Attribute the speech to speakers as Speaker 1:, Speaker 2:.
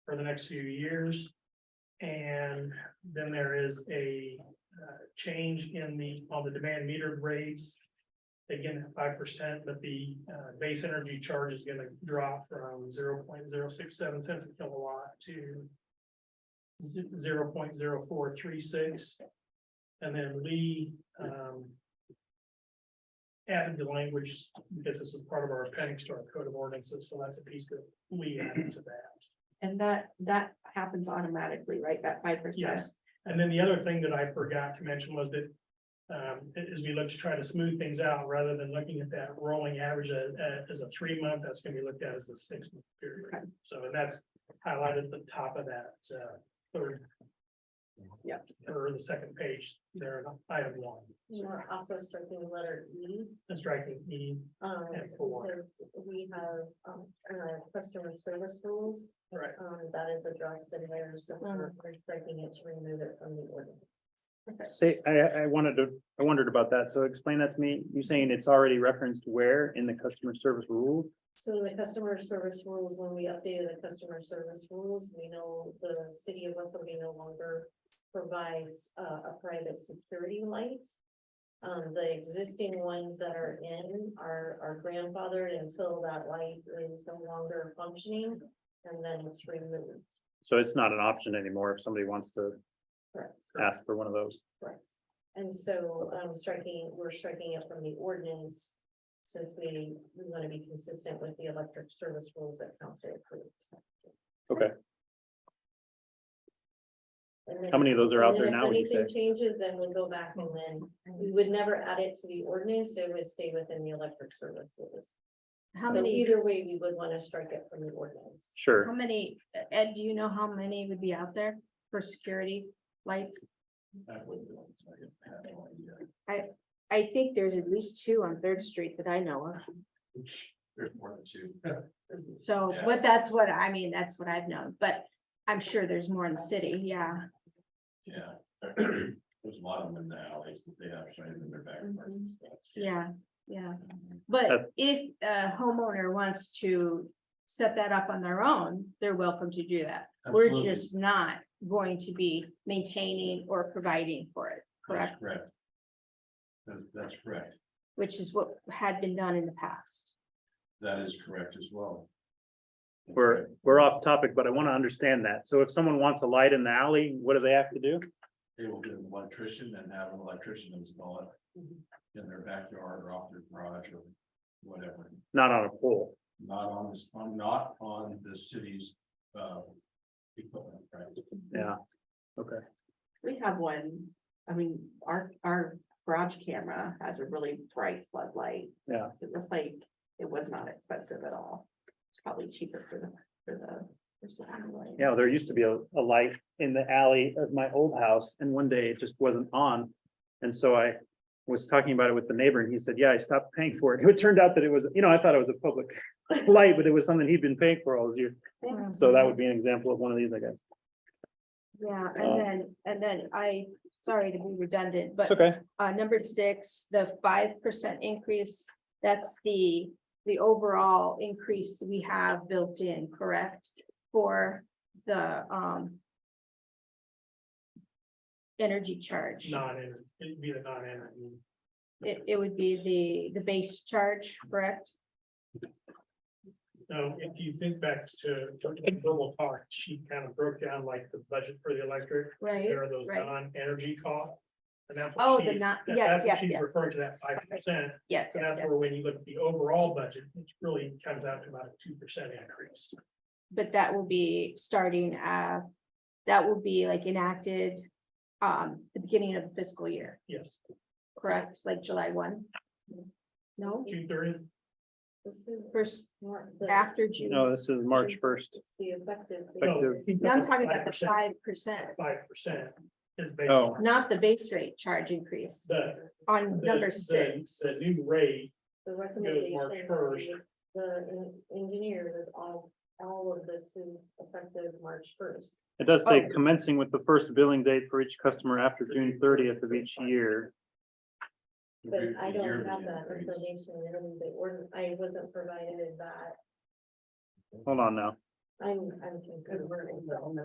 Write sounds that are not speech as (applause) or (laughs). Speaker 1: for the next few years. And then there is a uh, change in the, on the demand meter rates. Again, five percent, but the uh, base energy charge is gonna drop from zero point zero six seven cents a kilowatt to zero point zero four three six. And then Lee um added the language, because this is part of our appendix to our code of ordinances, so that's a piece that Lee added to that.
Speaker 2: And that, that happens automatically, right? That five percent.
Speaker 1: Yes, and then the other thing that I forgot to mention was that. Um, a- as we look to try to smooth things out, rather than looking at that rolling average a- a- as a three month, that's gonna be looked at as a six month
Speaker 2: Okay.
Speaker 1: period. So and that's highlighted at the top of that, uh, third.
Speaker 2: Yep.
Speaker 1: Or the second page, there, in item one,
Speaker 3: You are also striking the letter E,
Speaker 1: and striking E,
Speaker 3: um,
Speaker 1: And four.
Speaker 3: because we have, um, uh, customer service rules,
Speaker 1: right,
Speaker 3: um, that is addressed in there, so we're we're striking it to remove it from the ordinance.
Speaker 4: Say, I, I wanted to, I wondered about that, so explain that to me, you're saying it's already referenced where in the customer service rule?
Speaker 3: So the customer service rules, when we updated the customer service rules, we know the city of West Liberty no longer provides uh, a private security light. Um, the existing ones that are in are, are grandfathered until that light is no longer functioning, and then it's removed.
Speaker 4: So it's not an option anymore if somebody wants to
Speaker 3: Correct.
Speaker 4: ask for one of those.
Speaker 3: Correct. And so, um, striking, we're striking it from the ordinance, since we, we want to be consistent with the electric service rules that council approved.
Speaker 4: Okay.
Speaker 3: And then-
Speaker 4: How many of those are out
Speaker 3: and
Speaker 4: there
Speaker 3: then
Speaker 4: now, would you
Speaker 3: If anything
Speaker 4: say?
Speaker 3: changes, then we go back and then, we would never add it to the ordinance, it would stay within the electric service rules.
Speaker 5: How
Speaker 3: So
Speaker 5: many,
Speaker 3: either way, we would want to strike it from the ordinance.
Speaker 5: how
Speaker 4: Sure,
Speaker 5: many, Ed, do you know how many would be out there for security lights? I think there's at least two on Third Street that I know of.
Speaker 6: There's more than
Speaker 1: (laughs)
Speaker 6: two.
Speaker 5: So,
Speaker 6: Yeah.
Speaker 5: but that's what, I mean, that's what I've known, but I'm sure there's more in the city, yeah.
Speaker 6: Yeah. (clears throat) There's a lot of them in the alleys that they have shining in their back. parts
Speaker 3: Mm-hmm.
Speaker 6: and stuff.
Speaker 5: Yeah, yeah, but if a homeowner wants to set that up on their own, they're welcome to do that. We're
Speaker 6: Absolutely.
Speaker 5: just not going to be maintaining or providing for it, correct?
Speaker 6: That's correct. That- that's correct.
Speaker 5: Which is what had been done in the past.
Speaker 6: That is correct as well.
Speaker 4: we're, we're off topic, but I want to understand that, so if someone wants a light in the alley, what do they have to do?
Speaker 6: They will get an electrician and have an electrician install it
Speaker 3: Mm-hmm.
Speaker 6: in their backyard or off their garage or whatever.
Speaker 4: Not on a pole,
Speaker 6: Not on this, on, not on the city's, uh, equipment, right?
Speaker 4: yeah,
Speaker 2: We have one, I mean, our, our garage camera has a really bright floodlight.
Speaker 4: Yeah.
Speaker 2: It was like, it was not expensive at all. It's probably cheaper for the, for the. for the family.
Speaker 4: you know, there used to be a, a light in the alley of my old house, and one day it just wasn't on. And so I was talking about it with the neighbor, and he said, yeah, I stopped paying for it, (laughs) it turned out that it was, you know, I thought it was a public light, but it was something he'd been paying for all those years. So that would be an example of one of these, I guess.
Speaker 5: Yeah,
Speaker 4: Uh,
Speaker 5: and then, and then I, sorry to be redundant,
Speaker 4: It's
Speaker 5: but
Speaker 4: okay.
Speaker 5: uh, number six, the five percent increase, that's the, the overall increase we have built in, correct? For the, um, energy charge.
Speaker 1: non-energy, it'd be E. the non-energy.
Speaker 5: It, it would be the, the base charge, correct?
Speaker 1: Now, if you think back to to Global Talk, she kind of broke down like the budget for the electric.
Speaker 5: Right?
Speaker 1: There are those
Speaker 5: right.
Speaker 1: non-energy costs. And that's.
Speaker 5: Oh,
Speaker 1: what
Speaker 5: the
Speaker 1: she's-
Speaker 5: not-
Speaker 1: that-
Speaker 5: yes,
Speaker 1: that's what
Speaker 5: yes,
Speaker 1: She's
Speaker 5: yes.
Speaker 1: referring to that five percent,
Speaker 5: Yes,
Speaker 1: so
Speaker 5: yes,
Speaker 1: that's
Speaker 5: yes.
Speaker 1: where when you look at the overall budget, it really comes out to about a two percent increase.
Speaker 5: but that will be starting, uh, that will be like enacted, um, the beginning of the fiscal year,
Speaker 1: Yes,
Speaker 5: correct? Like July one? No,
Speaker 1: June thirtieth,
Speaker 3: This is
Speaker 5: first,
Speaker 3: more the-
Speaker 5: after June.
Speaker 4: No, this is March first.
Speaker 3: it's the effective. date.
Speaker 4: Effective
Speaker 5: No, I'm talking about the five percent,
Speaker 1: Five percent is based
Speaker 4: Oh.
Speaker 1: on
Speaker 5: not the base rate charge increase
Speaker 1: the.
Speaker 5: on
Speaker 1: the-
Speaker 5: number
Speaker 1: the-
Speaker 5: six.
Speaker 1: The new rate,
Speaker 3: The recommendation.
Speaker 1: March
Speaker 3: from
Speaker 1: 1st.
Speaker 3: The en- engineer was all, all of this is effective March first.
Speaker 4: It does say
Speaker 5: Oh.
Speaker 4: commencing with the first billing date for each customer after June thirtieth of each year.
Speaker 6: It'd
Speaker 3: But
Speaker 6: be
Speaker 3: I
Speaker 6: a
Speaker 3: don't
Speaker 6: yearly
Speaker 3: have that
Speaker 6: increase.
Speaker 3: information in the ordinance, I wasn't provided that.
Speaker 4: Hold on now.
Speaker 3: I'm, I'm. concerned.